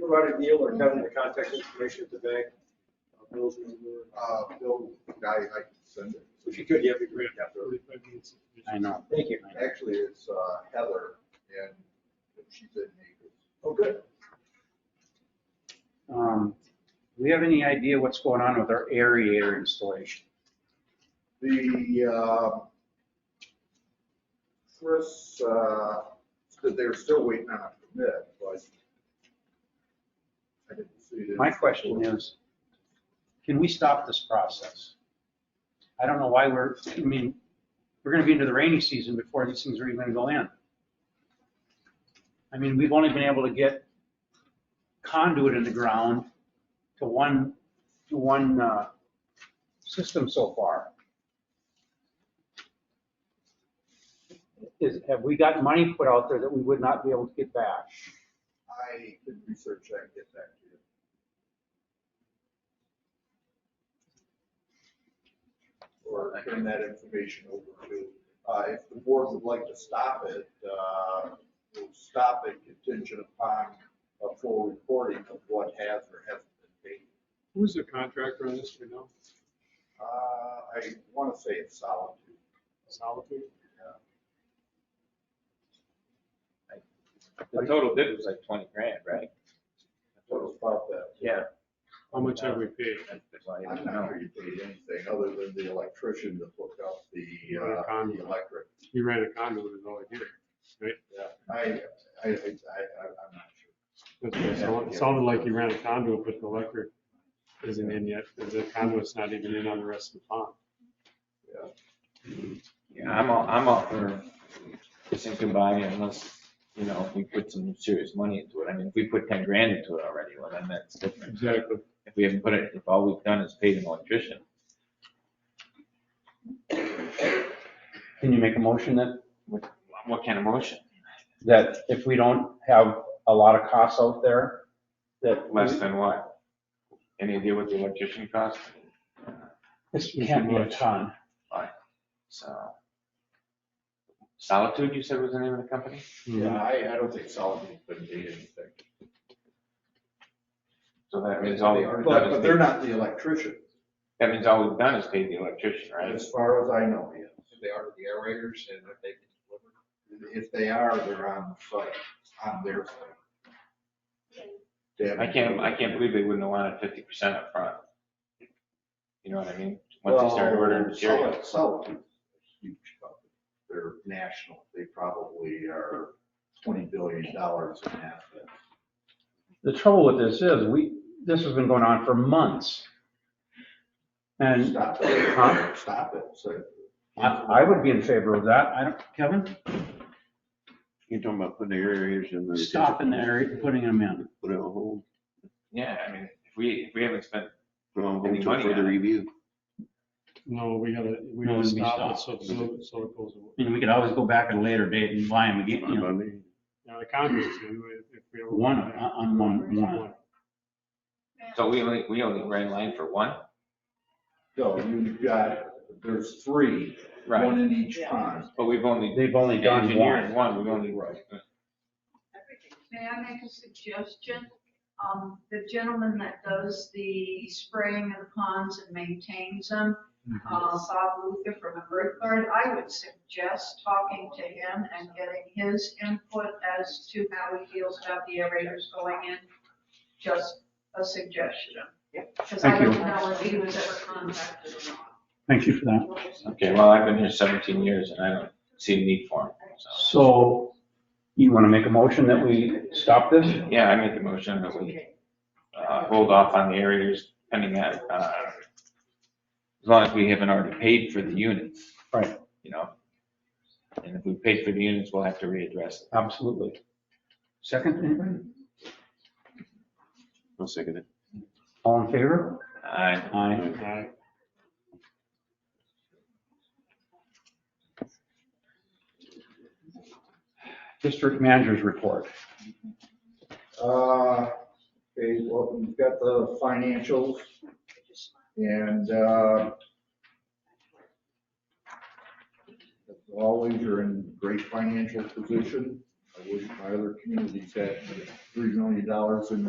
provided Neil or Kevin the contact information at the bank? Uh, Bill's number. Uh, Bill, I, I can send it. If you could, yeah, it'd be great. I know. Thank you. Actually, it's uh, Heather and she's in Naples. Oh, good. Um, Do we have any idea what's going on with our aerator installation? The, uh, Chris, uh, said they're still waiting on a permit, but I didn't see it. My question is, can we stop this process? I don't know why we're, I mean, we're gonna be into the rainy season before these things are even gonna go in. I mean, we've only been able to get conduit in the ground to one, to one, uh, system so far. Is, have we got money put out there that we would not be able to get back? I can research that and get back to you. Or turn that information over to, uh, if the board would like to stop it, uh, we'll stop it contingent upon a full reporting of what has or hasn't been paid. Who's the contractor on this, you know? Uh, I want to say it's solitude. Solitude? yeah. The total bid was like twenty grand, right? Total about that. Yeah. How much have we paid? I'm not sure you paid anything other than the electrician to hook up the, Other uh, the conduit. electric. You ran a conduit is all I did. Yeah, I, I, I, I, I'm not sure. That's what It sounded- it sounded like you ran a conduit, but the electric isn't in yet. The conduit's not even in on the rest of the pond. Yeah, I'm all, I'm all for thinking by unless, you know, we put some serious money into it. I mean, if we put ten grand into it already, well, then that's different. Exactly. If we haven't put it, if all we've done is paid an electrician. Can you make a motion then? What kind of motion? that if we don't have a lot of costs out there, that. Less than what? Any idea what the electrician cost? This can't be a ton. So. Solitude, you said was the name of the company? Yeah, I, I don't think Solomon's been paid anything. So that means all we've But, done but they're is, not the electrician, that means all we've done is paid the electrician, right? as far as I know, yes. They are the aerators and if they can deliver. If they are, they're on the site, on their site. They I haven't- can't, I can't believe they wouldn't have wanted fifty percent up front. You know what I mean? Once they started ordering Well, material. Sullivan- Sullivan's a huge company. They're national. They probably are twenty billion dollars in assets. The trouble with this is, we, this has been going on for months. And Stop Huh? uh-huh. it, stop it, so. I, I would be in favor of that. I don't, Kevin, You're talking about putting the aerators in there. stopping the area, putting them in. Put it on hold, Yeah, I mean, if we, if we haven't spent, put it on Any hold till money further on it? review. No, we gotta, we No, gotta it'd be stop it so, stopped. so so it goes away. I mean, we could always go back at a later date and buy them again, you know, Fine by me. Now, the conduit's in, if we ever. one, on- on one, one. so we only, we only ran line for one? No, you've got, there's three, one in each pond. But we've only They've only done engineered one. one, we've only. May I make a suggestion? Um, the gentleman that does the spraying of the ponds and maintains them, Mm-hmm. uh, Bob Luther from the Bird Guard, I would suggest talking to him and getting his input as to how he feels about the aerators going in. Just a suggestion. Because I Thank you. don't know if he was ever contacted or Thank you for that. not. Okay, well, I've been here seventeen years and I don't see a need for them, so. So you want to make a motion that we stop this? Yeah, I make a motion that we, uh, hold off on the areas pending that, uh, as long as we haven't already paid for the units. Right. You know? And if we paid for the units, we'll have to readdress it. Absolutely. Second, anybody? I'll second it. All in favor? I, Aye. Aye. District managers report. Uh, okay, well, you've got the financials and, uh, as always, you're in great financial position. I wish my other communities had three million dollars in